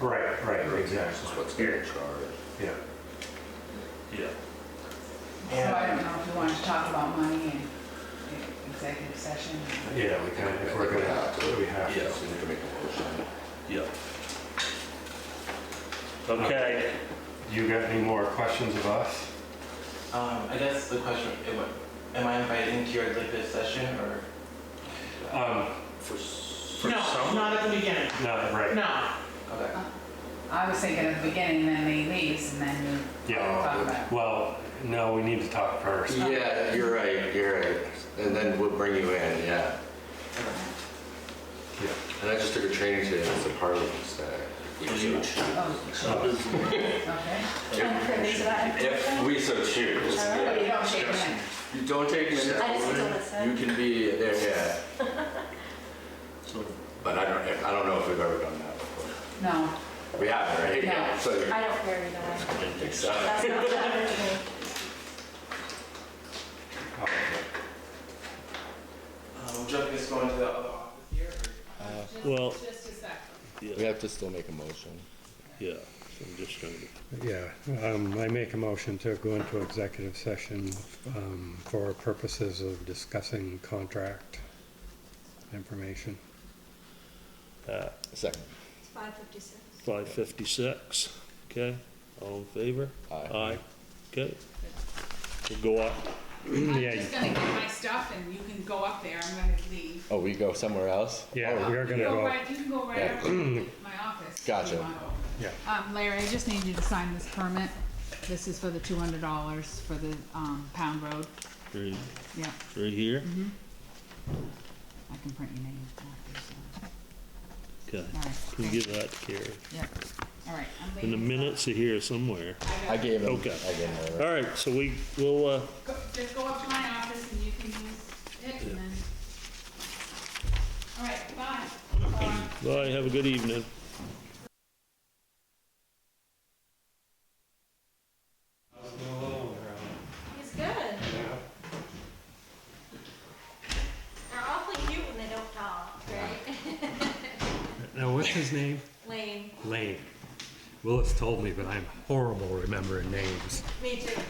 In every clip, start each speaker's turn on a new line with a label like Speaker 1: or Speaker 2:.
Speaker 1: Right, right,
Speaker 2: That's
Speaker 1: exactly,
Speaker 2: what's getting charged.
Speaker 1: yeah.
Speaker 3: Yeah.
Speaker 4: So I don't know if you wanted to talk about money in in executive session.
Speaker 1: Yeah, we kind of, if we're gonna, have to, we have
Speaker 3: Yeah.
Speaker 1: to.
Speaker 2: So you can make a motion.
Speaker 3: Yeah. Okay,
Speaker 1: You got any more questions of us?
Speaker 5: Um, I guess the question, am I- am I invited to your executive session or?
Speaker 1: Um,
Speaker 3: for, s- for
Speaker 6: No,
Speaker 3: some,
Speaker 6: not at the beginning.
Speaker 1: no, right,
Speaker 6: No,
Speaker 5: Okay.
Speaker 4: I was thinking at the beginning, then they leaves and then you
Speaker 1: Yeah.
Speaker 4: talk about.
Speaker 1: well, no, we need to talk first.
Speaker 2: Yeah, you're right, you're right. And then we'll bring you in, yeah.
Speaker 1: Yeah.
Speaker 2: And I just took a training today, it's a Parliament's Day. uh, We
Speaker 3: Huge.
Speaker 2: choose.
Speaker 4: Oh,
Speaker 1: Uh,
Speaker 3: some is,
Speaker 4: okay.
Speaker 7: I'm privy to that
Speaker 2: If
Speaker 7: information.
Speaker 2: we so choose.
Speaker 7: All
Speaker 4: But
Speaker 7: right.
Speaker 4: you don't shake hands.
Speaker 2: You don't take minutes.
Speaker 7: I just need to
Speaker 2: You
Speaker 7: listen.
Speaker 2: can be there, yeah.
Speaker 3: so,
Speaker 2: But I don't, I don't know if we've ever done that before.
Speaker 4: No,
Speaker 2: We haven't, right?
Speaker 4: No.
Speaker 2: So,
Speaker 7: I don't care either
Speaker 2: I
Speaker 7: way.
Speaker 2: didn't think so.
Speaker 7: That's not happening to me.
Speaker 5: Um, would you like me to go into the other office here or?
Speaker 3: Well-
Speaker 4: Just just a second.
Speaker 2: We have to still make a motion.
Speaker 3: yeah, so I'm just trying to.
Speaker 8: Yeah, um, I make a motion to go into executive session, um, for purposes of discussing contract information.
Speaker 2: Second.
Speaker 7: It's 5:56.
Speaker 3: 556, okay? All in favor?
Speaker 2: Aye.
Speaker 3: Aye, okay. We'll go up.
Speaker 4: I'm
Speaker 8: Yeah.
Speaker 4: just gonna get my stuff and you can go up there, I'm gonna leave.
Speaker 2: Oh, we go somewhere else?
Speaker 8: Yeah, Oh, we are gonna
Speaker 4: Go
Speaker 8: go,
Speaker 4: Oh, right, you can go right up to my office. if you
Speaker 2: Gotcha.
Speaker 4: want.
Speaker 8: Yeah.
Speaker 4: Um, Larry, I just need you to sign this permit. This is for the two hundred dollars for the, um, Pound Road.
Speaker 3: Right
Speaker 4: Yeah,
Speaker 3: right here,
Speaker 6: Mm-hmm.
Speaker 4: I can print your name. after, so.
Speaker 3: okay.
Speaker 4: All
Speaker 3: Can
Speaker 4: right,
Speaker 3: we
Speaker 4: thank you.
Speaker 3: give that to Carrie?
Speaker 4: Yeah, all right, I'm
Speaker 3: And
Speaker 4: leaving.
Speaker 3: the minutes are here somewhere.
Speaker 2: I gave him, I
Speaker 3: Okay.
Speaker 2: gave him.
Speaker 3: All right, so we, we'll, uh,
Speaker 4: Go- Just go up to my office and you can use it and then. All right, bye. Bye.
Speaker 3: bye, have a good evening.
Speaker 7: He's good. They're awfully cute when they don't talk, right?
Speaker 8: now what's his name?
Speaker 7: Lame.
Speaker 8: Lane. Willis told me, but I'm horrible remembering names.
Speaker 7: Me too.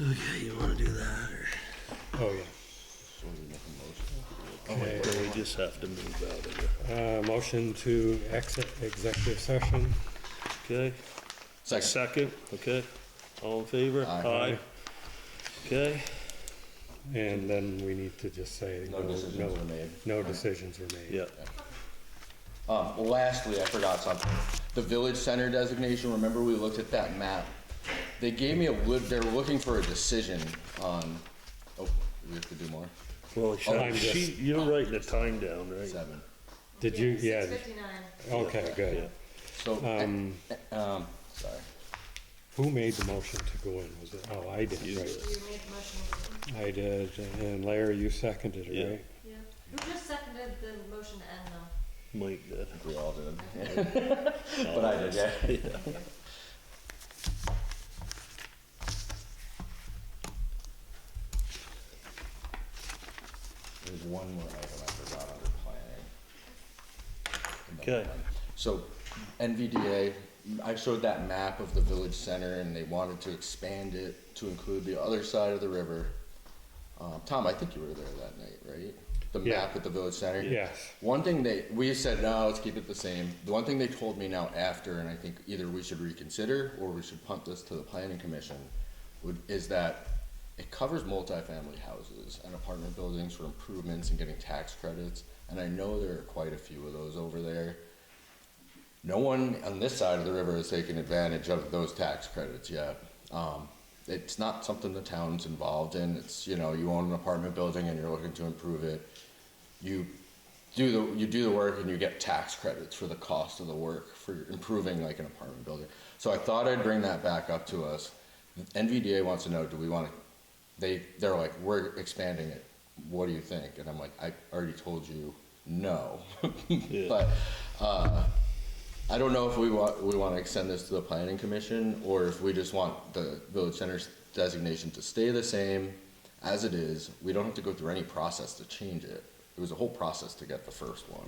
Speaker 3: Okay, you wanna do that, or?
Speaker 8: Oh, yeah. Okay,
Speaker 3: Or we just have to move out of here,
Speaker 8: uh, motion to exit executive session.
Speaker 3: okay?
Speaker 2: Second.
Speaker 3: Second, okay? All in favor?
Speaker 2: Aye.
Speaker 3: Okay,
Speaker 8: And then we need to just say,
Speaker 2: No decisions were made.
Speaker 8: no decisions were made.
Speaker 3: yeah.
Speaker 2: Um, lastly, I forgot something. The village center designation, remember we looked at that map? They gave me a, li- they're looking for a decision on, oh, we have to do more?
Speaker 3: Well,
Speaker 2: I'm
Speaker 3: she, she- you're writing the time down, right?
Speaker 2: Seven.
Speaker 8: Did you, yeah,
Speaker 7: 6:59.
Speaker 8: okay,
Speaker 3: Yeah.
Speaker 8: good.
Speaker 2: So,
Speaker 8: Um,
Speaker 2: eh, um, sorry.
Speaker 8: who made the motion to go in? Was it, oh, I did,
Speaker 3: You
Speaker 8: right.
Speaker 3: did.
Speaker 7: You made the motion.
Speaker 8: I did, and Larry, you seconded
Speaker 3: Yeah.
Speaker 8: it, right?
Speaker 7: Yeah. Who just seconded the motion to end though?
Speaker 3: Mike did.
Speaker 2: We all did. But I did, yeah. There's one more item I forgot under planning.
Speaker 3: Okay.
Speaker 2: So NVDA, I showed that map of the village center and they wanted to expand it to include the other side of the river. Um, Tom, I think you were there that night, right? The
Speaker 8: Yeah.
Speaker 2: map at the village center?
Speaker 8: Yes.
Speaker 2: One thing they, we said, no, let's keep it the same. The one thing they told me now after, and I think either we should reconsider or we should punt this to the planning commission, would, is that it covers multifamily houses and apartment buildings for improvements and getting tax credits. And I know there are quite a few of those over there. No one on this side of the river has taken advantage of those tax credits yet. Um, it's not something the town's involved in. It's, you know, you own an apartment building and you're looking to improve it. You do the, you do the work and you get tax credits for the cost of the work for improving like an apartment building. So I thought I'd bring that back up to us. NVDA wants to know, do we want to, they, they're like, we're expanding it. What do you think? And I'm like, I already told you no. But, uh, I don't know if we want, we want to extend this to the planning commission, or if we just want the village center's designation to stay the same as it is. We don't have to go through any process to change it. It was a whole process to get the first one.